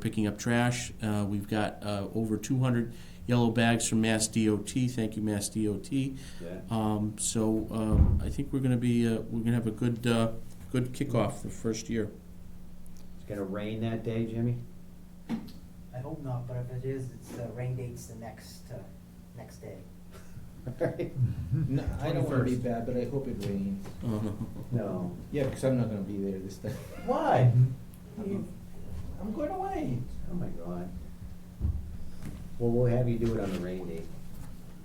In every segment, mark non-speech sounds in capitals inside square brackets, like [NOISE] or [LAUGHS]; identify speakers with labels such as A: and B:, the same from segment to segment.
A: picking up trash. Uh, We've got uh, over 200 yellow bags from Mass DOT. Thank you, Mass DOT.
B: Yeah.
A: Um, So um, I think we're going to be, uh, we're going to have a good, uh, good kickoff the first
C: [LAUGHS]
A: year.
B: It's gonna rain that day, Jimmy? [LAUGHS]
D: I hope not, but if it is, it's, uh, rain date's the next, uh, next day.
E: No, I don't wanna be bad, but I hope it rains.
A: Uh,
B: No.
E: Yeah, because I'm not gonna be there this time.
B: Why?
E: I'm going away.
B: Oh my God. Well, we'll have you do it on the rain date.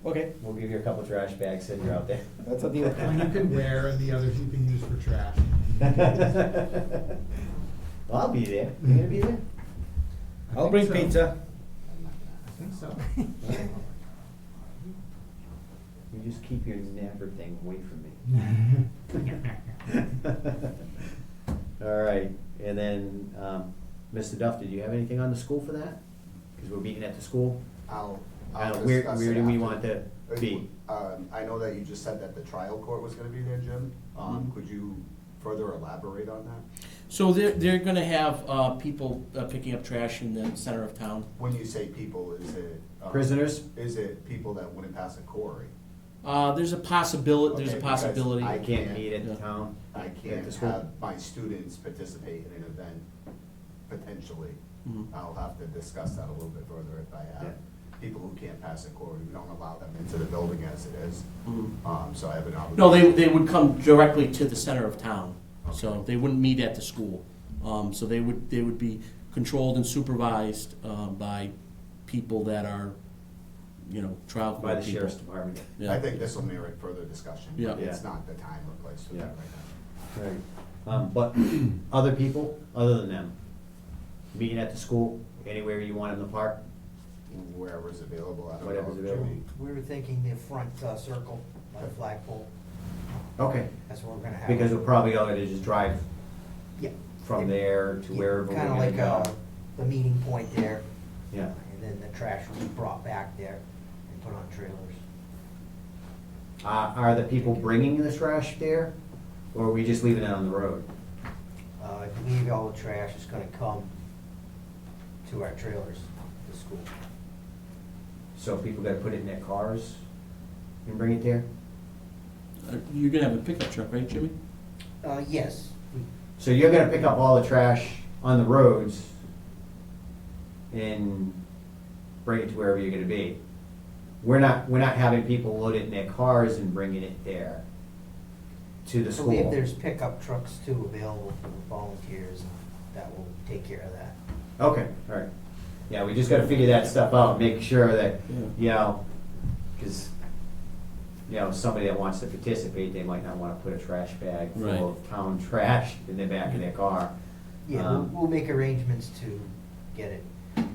E: Okay.
B: We'll give you a couple trash bags, send you out there.
E: That's a deal.
F: One you can wear [LAUGHS] and the others you can use for
B: [LAUGHS]
F: trash. [LAUGHS]
B: I'll be there. You gonna be there?
F: I
E: I'll
F: think
E: bring
F: so.
E: pizza.
F: I think so.
B: You just keep your napper thing away from me. All right, and then, um, Mr. Duff, did you have anything on the school for that? Because we're meeting at the school.
C: I'll,
B: Uh,
C: I'll
B: Where,
C: discuss
B: where
C: it
B: do we
C: after.
B: want to
C: Uh,
B: be?
C: Um, I know that you just said that the trial court was gonna be there, Jim. Um,
B: Mm-hmm.
C: could you further elaborate on that?
A: So they're, they're going to have uh, people uh, picking up trash in the center of town.
C: When you say people, is it? um,
B: Prisoners?
C: Is it people that wouldn't pass a query?
A: Uh, There's a possibility, there's
C: Okay,
A: a
C: because
A: possibility.
B: I can't meet at the
A: Yeah.
B: town.
C: I
B: at the
C: can't
B: school.
C: have my students participate in an event, potentially.
A: Mhm.
C: I'll have to discuss that a little bit further if I
B: Yeah.
C: have people who can't pass a query, we don't allow them into the building as it is. Um, so I have an obligation.
A: No, they, they would come directly to the center of town, so they wouldn't meet at the school. Um, so they would, they would be controlled and supervised, um, by people that are, you know, trial court people.
B: By the sheriff's department.
C: I
A: Yeah.
C: think this will merit further discussion. but
A: Yeah.
C: It's
B: Yeah.
C: not the time or place for
B: Yeah.
C: that right now.
B: Right. Um, but other people, other than them, meeting at the school, anywhere you want in the park,
C: Wherever's available, I don't know.
B: Whatever's
C: if
B: available.
C: Jimmy-
D: We were thinking the front, uh, circle, by the flagpole,
B: Okay,
D: that's what we're gonna have.
B: because we're probably all gonna just drive
D: Yeah.
B: from there to wherever we're
D: Kinda
B: gonna
D: like, uh,
B: go.
D: the meeting point there,
B: Yeah,
D: and then the trash will be brought back there and put on trailers.
B: uh, are the people bringing the trash there, or are we just leaving it on the road?
D: Uh, I believe all the trash is gonna come to our trailers, the school.
B: So people gotta put it in their cars and bring it there?
A: Uh, You're gonna have a pickup truck, right, Jimmy?
D: Uh, yes, we
B: So you're gonna pick up all the trash on the roads and bring it to wherever you're gonna be. We're not, we're not having people load it in their cars and bringing it there to the
D: I
B: school.
D: believe there's pickup trucks too available for volunteers that will take care of that.
B: Okay, all right. Yeah, we just gotta figure that stuff out, make sure that,
A: Yeah.
B: you know, cause, you know, somebody that wants to participate, they might not wanna put a trash bag
A: Right.
B: full of town trash in the back of their car.
D: Yeah, we'll,
B: Um,
D: we'll make arrangements to get it.
B: Okay.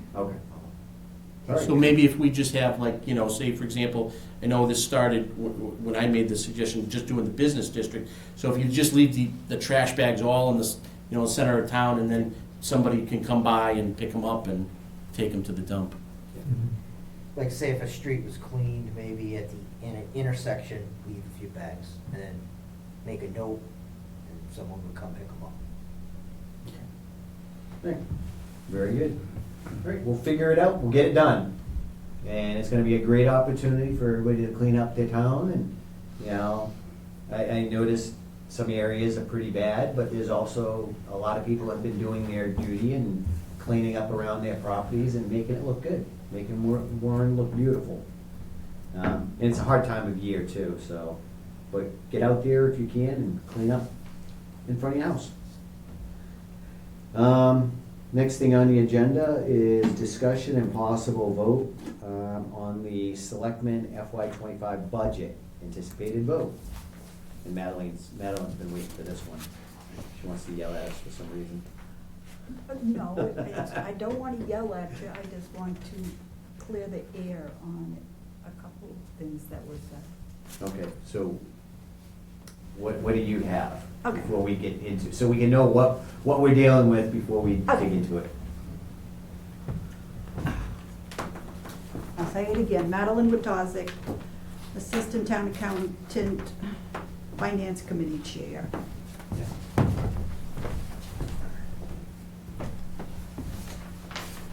B: All right.
A: So maybe if we just have like, you know, say for example, I know this started w- w- when I made the suggestion, just doing the business district. So if you just leave the, the trash bags all in the, s- you know, center of town and then somebody can come by and pick them up and take them to the dump.
D: Like say if a street was cleaned, maybe at the in- intersection, leave a few bags and then make a note and someone would come pick them up.
B: Right. Very good. All right, we'll figure it out, we'll get it done. And it's gonna be a great opportunity for everybody to clean up their town and, you know, I, I noticed some areas are pretty bad, but there's also a lot of people have been doing their duty and cleaning up around their properties and making it look good, making Wa- Warren look beautiful. Um, and it's a hard time of year too, so, but get out there if you can and clean up in front of your house. Um, next thing on the agenda is discussion and possible vote, um, on the selectmen FY twenty-five budget, anticipated vote. And Madeline's, Madeline's been waiting for this one. She wants to yell at us for some reason.
G: No, it's- I don't want to yell at you, I just want to clear the air on a couple of things that were said.
B: Okay, so what, what do you have?
G: Okay.
B: Before we get into, so we can know what, what we're dealing with before we
G: Okay.
B: dig into it.
G: I'll say it again, Madeline Watazik, Assistant Town Accountant, Finance Committee Chair.